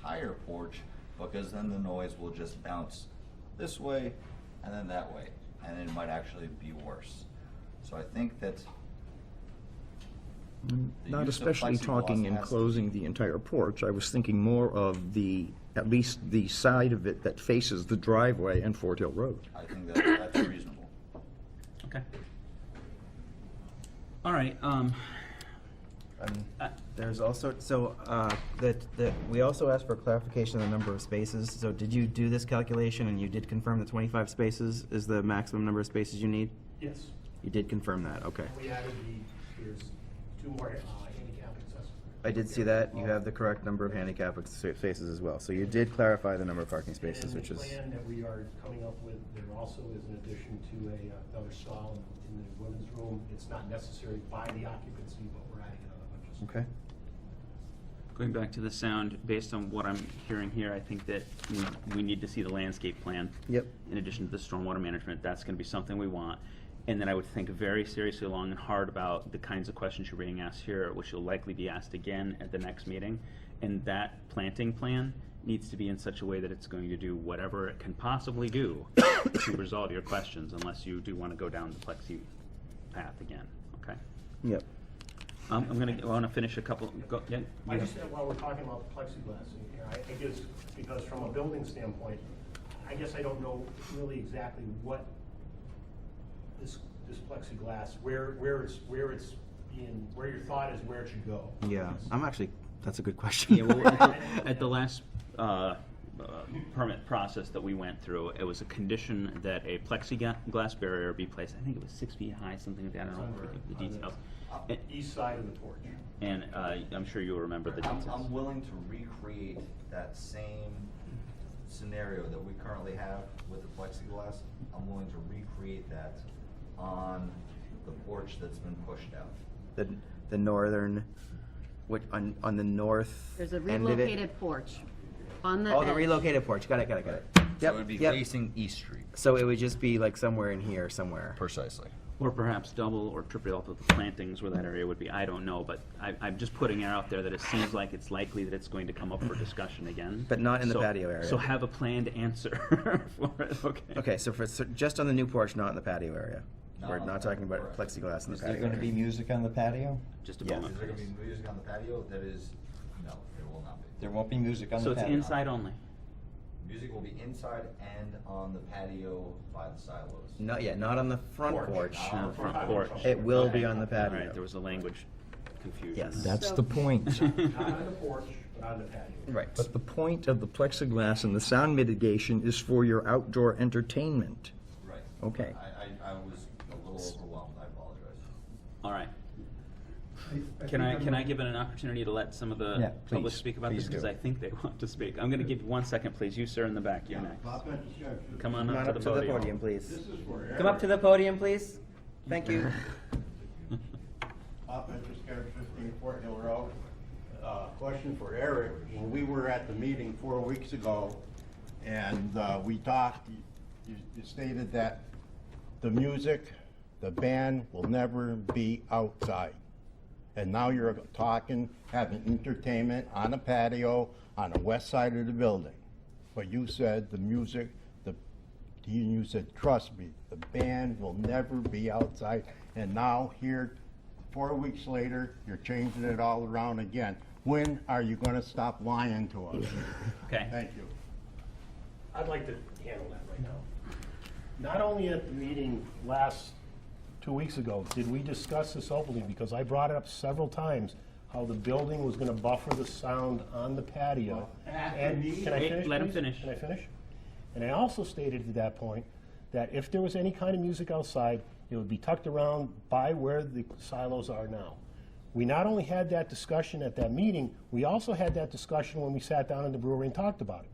higher porch because then the noise will just bounce this way and then that way, and it might actually be worse. So I think that The Mm, Not use of especially plexiglass talking has to- enclosing the entire porch. I was thinking more of the, at least the side of it that faces the driveway and Fort Hill Road. I think that that's reasonable. Okay. All right, um, Um, There's also, so, uh, that, that, we also asked for clarification on the number of spaces. So did you do this calculation and you did confirm that twenty-five spaces is the maximum number of spaces you need? Yes, You did confirm that, okay. we added the, there's two more uh, handicap accessible. I did see that. You have the correct number of handicap ex- spaces as well. So you did clarify the number of parking spaces, which is, And the plan that we are coming up with, there also is an addition to a, uh, another stall in- in the women's room. It's not necessary by the occupancy, but we're adding another one just. okay. going back to the sound, based on what I'm hearing here, I think that we, we need to see the landscape plan. Yep. In addition to the stormwater management, that's gonna be something we want. And then I would think very seriously, long and hard about the kinds of questions you're being asked here, which will likely be asked again at the next meeting. And that planting plan needs to be in such a way that it's going to do whatever it can possibly do to resolve your questions, unless you do wanna go down the plexi path again, okay? Yep. Um, I'm gonna, I wanna finish a couple, go, yeah? I just, said while we're talking about the plexiglass, in here, I I guess, because from a building standpoint, I guess I don't know really exactly what this, this plexiglass, where, where it's, where it's being, where your thought is where it should go. Yeah, I'm actually, that's a good question. Yeah, well, at the- at the last uh, uh, permit process that we went through, it was a condition that a plexiglass barrier be placed, I think it was six feet high, something like that, I don't know the details. And- East side of the porch. And uh, I'm sure you'll remember the I'm, details. I'm willing to recreate that same scenario that we currently have with the plexiglass. I'm willing to recreate that on the porch that's been pushed out. The, the northern, which, on, on the north There's a end of it. relocated porch on the Oh, the edge. relocated porch. Got it, got it, got it. So it would Yep, be yep. facing East Street. So it would just be like somewhere in here, somewhere. Precisely. Or perhaps double or triple off of the plantings where that area would be, I don't know, but I, I'm just putting it out there that it seems like it's likely that it's going to come up for discussion again. But not in the So- patio area. So have a planned answer for it, okay? Okay, so for, so just on the new porch, not in the patio area. Not We're on not the talking about correct. plexiglass in the Is there patio gonna be area. music on the patio? Just a Yes. moment, Is there gonna please. be music on the patio? That is, no, there will not be. There won't be music on So the it's patio? inside only? Music will be inside and on the patio by the silos. Not yet, not on the front Porch. porch. Not On the front porch. It will be Okay. on the All right, there patio. was a language confusion. Yes. That's the point. Not on the porch, but on the patio. Right. But the point of the plexiglass and the sound mitigation is for your outdoor entertainment. Right. Okay. I, I, I was a little overwhelmed, I apologize. All right. Can I, can I give it an opportunity to let some of Yeah, the public please. speak about this? Please do. Because I think they want to speak. I'm going to give you one second, please. You, sir, in the back, you're next. Come on Come up to the podium. please. Come up to the podium, please. Thank you. Bob Petroscar, 15 Fort Hill Road. Uh, Question for Eric. When we were at the meeting four weeks ago and uh, we talked, you- you stated that the music, the band will never be outside. And now you're talking, having entertainment on a patio on the west side of the building. But you said the music, the you you said, trust me, the band will never be outside. And now here, four weeks later, you're changing it all around again. When are you gonna stop lying to us? Okay. Thank you. I'd like to handle that right now. Not only at the meeting last, two weeks ago, did we discuss this openly, because I brought it up several times, how the building was gonna buffer the sound on the patio. And Can I Wait, finish, let him please? finish. Can I finish? And I also stated at that point that if there was any kind of music outside, it would be tucked around by where the silos are now. We not only had that discussion at that meeting, we also had that discussion when we sat down in the brewery and talked about it.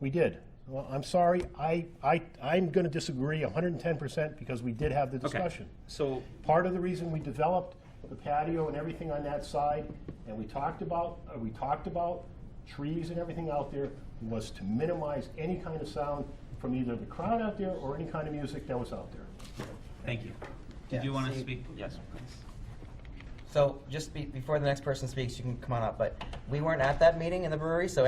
We did. Well, I'm sorry, I, I, I'm gonna disagree hundred and ten percent because we did have the Okay. discussion. So, Part of the reason we developed the patio and everything on that side, and we talked about, uh, we talked about trees and everything out there, was to minimize any kind of sound from either the crowd out there or any kind of music that was out there. thank you. Did you Yeah, want to see- speak? Yes, please. So just be, before the next person speaks, you can come on up, but we weren't at that meeting in the brewery, so